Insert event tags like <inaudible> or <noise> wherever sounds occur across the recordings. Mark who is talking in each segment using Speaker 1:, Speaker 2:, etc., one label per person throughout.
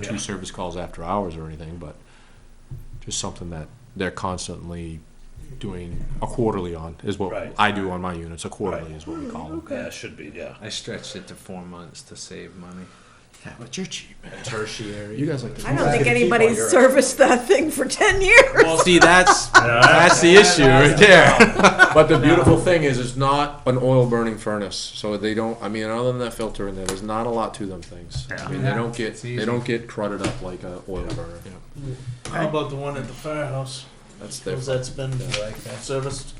Speaker 1: two service calls after hours or anything, but just something that they're constantly doing a quarterly on, is what
Speaker 2: Right.
Speaker 1: I do on my units, a quarterly
Speaker 2: Right.
Speaker 1: is what we call them.
Speaker 2: Yeah, it should be, yeah.
Speaker 3: I stretched it to four months to save money.
Speaker 1: Yeah, but you're cheap, man.
Speaker 3: Tertiary.
Speaker 1: You guys like to.
Speaker 4: I don't think anybody serviced that thing for ten years.
Speaker 3: Well, see, that's
Speaker 2: Yeah,
Speaker 3: that's the issue right there.
Speaker 1: <laughs> But the beautiful thing is, it's not an oil burning furnace, so they don't, I mean, other than that filter in there, there's not a lot to them things. I mean, they don't get,
Speaker 3: It's
Speaker 1: they
Speaker 3: easy.
Speaker 1: don't get crudded up like a oil burner.
Speaker 5: How about the one at the firehouse?
Speaker 1: That's their,
Speaker 5: Because that's been serviced.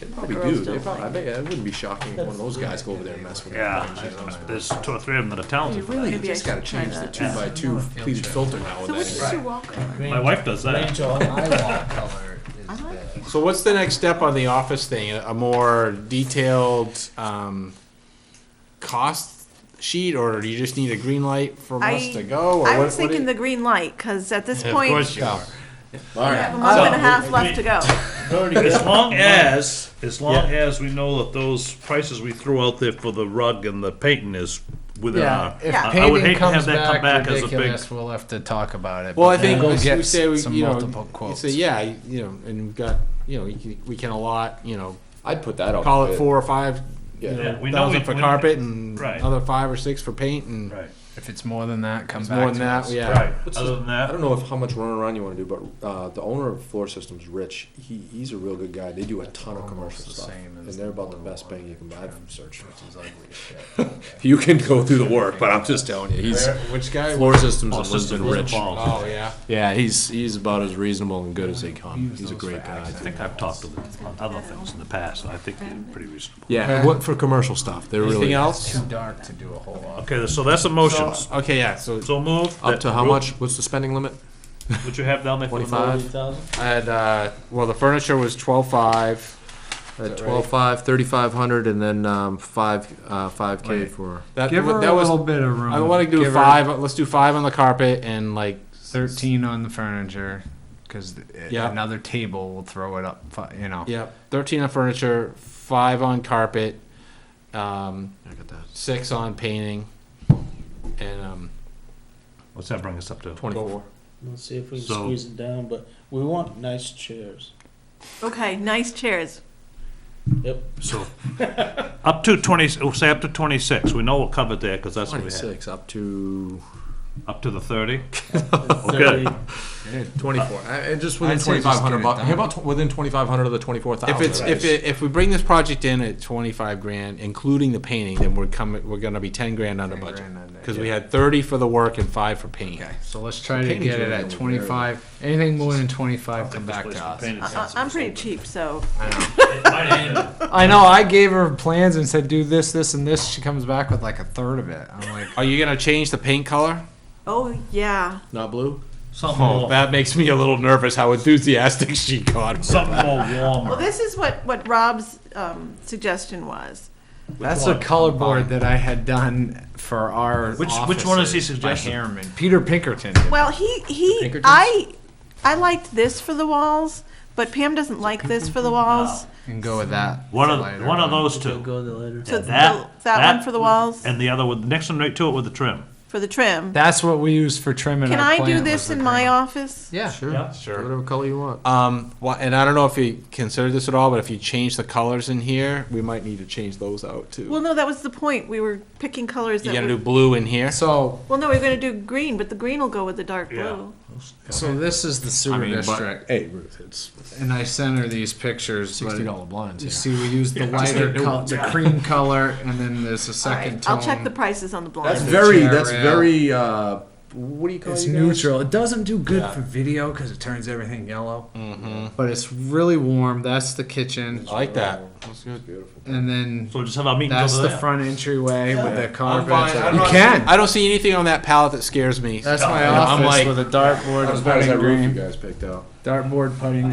Speaker 1: they probably
Speaker 4: girls
Speaker 1: do, they
Speaker 4: don't
Speaker 1: probably, I
Speaker 4: like
Speaker 1: bet, it wouldn't be shocking if one of those guys go over there and mess with it.
Speaker 2: Yeah, there's two or three of them that are
Speaker 4: You
Speaker 2: talented for
Speaker 4: really
Speaker 2: that.
Speaker 4: maybe I
Speaker 1: Just gotta
Speaker 4: should try
Speaker 1: change the
Speaker 4: that.
Speaker 1: two by two pleated filter now
Speaker 4: So
Speaker 1: and
Speaker 4: what's
Speaker 1: then.
Speaker 4: Sue Walker?
Speaker 2: My wife does that.
Speaker 5: Range on.
Speaker 3: My wall color is
Speaker 4: I like
Speaker 3: the-
Speaker 6: So what's the next step on the office thing? A a more detailed um, cost sheet, or do you just need a green light from
Speaker 4: I-
Speaker 6: us to go? Or
Speaker 4: I
Speaker 6: what-
Speaker 4: was
Speaker 6: what do
Speaker 4: thinking the
Speaker 6: you-
Speaker 4: green light, because at this
Speaker 6: Of
Speaker 4: point,
Speaker 6: course
Speaker 4: we
Speaker 6: you are.
Speaker 4: have a month and a
Speaker 2: So-
Speaker 4: half left to go.
Speaker 2: As long as, as long as we know that those prices we threw out there for the rug and the painting is within our.
Speaker 3: if
Speaker 4: Yeah.
Speaker 2: I- I would hate
Speaker 3: paving
Speaker 2: to have
Speaker 3: comes
Speaker 2: that come
Speaker 3: back
Speaker 2: back as a big.
Speaker 3: ridiculous, we'll have to talk about it.
Speaker 6: Well, I
Speaker 3: but
Speaker 6: think
Speaker 3: we'll
Speaker 6: we
Speaker 3: get
Speaker 6: we say we,
Speaker 3: some
Speaker 6: you know,
Speaker 3: multiple
Speaker 6: you
Speaker 3: quotes.
Speaker 6: say yeah, you know, and we've got you know we can, we can allot you know
Speaker 1: I'd put that out.
Speaker 6: call
Speaker 1: for
Speaker 6: it
Speaker 1: bid.
Speaker 6: four or five you
Speaker 1: Yeah.
Speaker 6: know,
Speaker 2: Yeah, we know
Speaker 6: thousand
Speaker 2: we-
Speaker 6: for
Speaker 2: we-
Speaker 6: carpet and
Speaker 2: Right.
Speaker 6: another five or six for paint and
Speaker 2: Right,
Speaker 3: If it's more than that, come
Speaker 6: it's
Speaker 3: back
Speaker 6: more than
Speaker 3: to
Speaker 6: that.
Speaker 3: us.
Speaker 6: Yeah.
Speaker 2: right.
Speaker 1: What's
Speaker 2: Other
Speaker 1: the-
Speaker 2: than
Speaker 1: I
Speaker 2: that,
Speaker 1: don't know if how much running around you want to do, but uh, the owner of Floor Systems, Rich, he, he's a real good guy. They do a ton of
Speaker 3: almost
Speaker 1: commercial
Speaker 3: the
Speaker 1: stuff,
Speaker 3: same
Speaker 1: and
Speaker 3: as
Speaker 1: they're
Speaker 3: the
Speaker 1: about the
Speaker 3: Motor
Speaker 1: best
Speaker 3: one.
Speaker 1: bang you can buy. I've searched.
Speaker 3: Which is ugly as shit.
Speaker 1: You can go through the work, but I'm just telling you, he's
Speaker 6: Where- which guy?
Speaker 1: Floor Systems
Speaker 2: Floor
Speaker 1: and
Speaker 2: Systems
Speaker 1: Lisbon
Speaker 2: was
Speaker 1: Rich.
Speaker 2: involved.
Speaker 6: Oh yeah.
Speaker 1: Yeah, he's he's about as reasonable and good as they come.
Speaker 3: Use
Speaker 1: He's a
Speaker 3: those
Speaker 1: great
Speaker 3: for
Speaker 1: guy.
Speaker 3: access.
Speaker 2: I think I've talked to them on other things in the past, and I think they're pretty reasonable.
Speaker 1: Yeah,
Speaker 6: Okay.
Speaker 1: what for commercial stuff? They're
Speaker 6: Anything
Speaker 1: really
Speaker 6: else?
Speaker 3: Too dark to do a whole lot.
Speaker 2: Okay, so that's the motions.
Speaker 6: Okay, yeah. So
Speaker 2: So move.
Speaker 1: up
Speaker 2: that-
Speaker 1: to how much? What's the spending limit?
Speaker 2: What you have down there for the move?
Speaker 1: 25?
Speaker 6: I had uh, well, the furniture was twelve five.
Speaker 1: At
Speaker 6: that
Speaker 1: twelve
Speaker 6: right?
Speaker 1: five, thirty five hundred, and then um, five uh, five k
Speaker 3: Wait.
Speaker 1: for.
Speaker 6: That,
Speaker 3: Give her
Speaker 6: that
Speaker 3: a
Speaker 6: was.
Speaker 3: little bit of room.
Speaker 6: I want to do
Speaker 3: Give her
Speaker 6: five. Let's do five on the carpet and like
Speaker 3: Thirteen on the furniture, because
Speaker 6: Yeah.
Speaker 3: another table will throw it up. fi- You know.
Speaker 6: yeah, thirteen on furniture, five on carpet, um,
Speaker 1: I got that.
Speaker 6: six on painting, and um,
Speaker 2: What's that bring us up to?
Speaker 6: twenty four.
Speaker 5: Let's see if we can
Speaker 2: So-
Speaker 5: squeeze it down, but we want nice chairs.
Speaker 4: Okay, nice chairs. Uh,
Speaker 5: Yep.
Speaker 2: So, <laughs> up to twenty, we'll say up to twenty-six, we know we're covered there, because that's what
Speaker 1: Twenty
Speaker 2: we had.
Speaker 1: six up to
Speaker 2: Up to the thirty?
Speaker 5: Thirty.
Speaker 1: twenty four. And just
Speaker 6: within
Speaker 1: within
Speaker 6: I'd say
Speaker 1: twenty five
Speaker 6: just 2500 get it
Speaker 1: hundred
Speaker 6: bucks-
Speaker 1: bucks.
Speaker 6: done.
Speaker 1: How
Speaker 6: how
Speaker 1: about
Speaker 6: about
Speaker 1: within twenty five hundred of the twenty four thousand?
Speaker 6: If it's if it, if we bring this project in at twenty five grand, including the painting, then we're coming. We're gonna be ten grand under
Speaker 3: 10
Speaker 6: budget
Speaker 3: grand under,
Speaker 6: because we
Speaker 3: yeah.
Speaker 6: had thirty for the work and five for paint.
Speaker 3: Okay, so let's try to
Speaker 1: painting's
Speaker 3: get it
Speaker 1: really
Speaker 3: at
Speaker 1: the
Speaker 3: twenty-five. Anything more than twenty-five, come back to us.
Speaker 4: I, I'm pretty cheap, so
Speaker 3: I know. I gave her plans and said, "Do this, this, and this." She comes back with like a third of it. I'm like,
Speaker 6: Are you gonna change the paint color?
Speaker 4: oh yeah.
Speaker 1: not blue.
Speaker 2: Something
Speaker 6: Oh,
Speaker 2: more,
Speaker 6: that makes me a little nervous. How enthusiastic <laughs> she got.
Speaker 2: something more
Speaker 4: Well,
Speaker 2: warmer.
Speaker 4: this is what what Rob's um, suggestion was.
Speaker 3: "That's
Speaker 2: one?
Speaker 3: a color board that I had done for our
Speaker 2: Which- which one is he
Speaker 3: offices by
Speaker 2: suggesting?
Speaker 3: Harriman, Peter Pinkerton. did
Speaker 4: Well, he he
Speaker 1: Pinkertons?
Speaker 4: I I liked this for the walls, but Pam doesn't like this for the walls.
Speaker 3: and go with that.
Speaker 2: One of,
Speaker 3: later
Speaker 2: one of
Speaker 3: on.
Speaker 2: those two.
Speaker 5: Go there later.
Speaker 4: So
Speaker 2: Yeah,
Speaker 4: th-
Speaker 2: that-
Speaker 4: that
Speaker 2: that-
Speaker 4: one for the walls,
Speaker 2: And the other one, next one right to it with the trim.
Speaker 4: for the trim.
Speaker 3: That's what we use for trimming.
Speaker 4: Can
Speaker 3: our
Speaker 4: I do
Speaker 3: plant
Speaker 4: this
Speaker 3: was the
Speaker 4: in my
Speaker 3: green.
Speaker 4: office?
Speaker 3: Yeah,
Speaker 1: Sure,
Speaker 2: Yeah.
Speaker 1: sure. Whatever color you want.
Speaker 6: Um, wha- and I don't know if you considered this at all, but if you change the colors in here, we might need to change those out too.
Speaker 4: Well, no, that was the point. We were picking colors
Speaker 6: you
Speaker 4: that
Speaker 6: gotta
Speaker 4: were
Speaker 6: do blue in here.
Speaker 3: So,
Speaker 4: Well, no, we are going to do green, but the green will go with the dark
Speaker 2: Yeah.
Speaker 4: blue.
Speaker 3: so this is the sewer
Speaker 1: I mean, but-
Speaker 3: district,
Speaker 1: Hey Ruth, it's
Speaker 3: and I sent her these pictures. but-
Speaker 1: sixty dollar blinds.
Speaker 3: You
Speaker 1: here.
Speaker 3: see, we use the lighter,
Speaker 1: new
Speaker 3: col- the cream color, and then there's a
Speaker 4: All right,
Speaker 3: second tone.
Speaker 4: I'll check the prices on the
Speaker 1: That's
Speaker 4: blinds.
Speaker 3: the
Speaker 1: very.
Speaker 3: chair
Speaker 1: That's
Speaker 3: rail.
Speaker 1: very. Uh, what do you call
Speaker 3: It's
Speaker 1: you guys?
Speaker 3: neutral. It doesn't do good
Speaker 6: Yeah.
Speaker 3: for video because it turns everything yellow.
Speaker 6: Mm-hmm.
Speaker 3: But it's really warm. That's the kitchen,
Speaker 6: I like that. That's good.
Speaker 1: Beautiful.
Speaker 3: and then
Speaker 2: So we'll just have our meetings
Speaker 3: that's
Speaker 2: over
Speaker 3: the
Speaker 2: there.
Speaker 3: front entryway with the carpet.
Speaker 6: fine. I'm
Speaker 3: You
Speaker 6: not-
Speaker 3: can.
Speaker 6: I don't see anything on that palette that scares me.
Speaker 3: That's my
Speaker 6: Yeah, I'm
Speaker 3: office
Speaker 6: like-
Speaker 3: with a dartboard,
Speaker 1: As
Speaker 3: and
Speaker 1: bad as
Speaker 3: putting
Speaker 1: that roof you
Speaker 3: green,
Speaker 1: guys picked out.
Speaker 3: dartboard, putting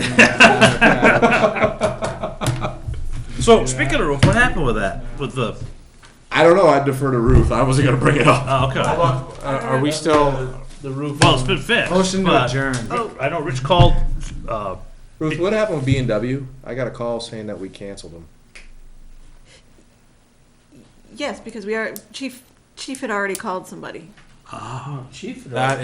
Speaker 3: green.
Speaker 2: So, speaking of roof, what happened with that, with the,
Speaker 1: <laughs> I don't know. I defer to Ruth. I wasn't gonna bring it up.
Speaker 2: oh, okay.
Speaker 6: Are, are we still?
Speaker 5: The roof.
Speaker 2: Well, it's been fixed.
Speaker 3: Motion to
Speaker 2: but-
Speaker 3: adjourn.
Speaker 4: Oh.
Speaker 2: I know Rich called, uh,
Speaker 1: Ruth, what happened with B and W? I got a call saying that we canceled them.
Speaker 4: Yes, because we are chief. Chief had already called somebody.
Speaker 5: Chief.
Speaker 6: That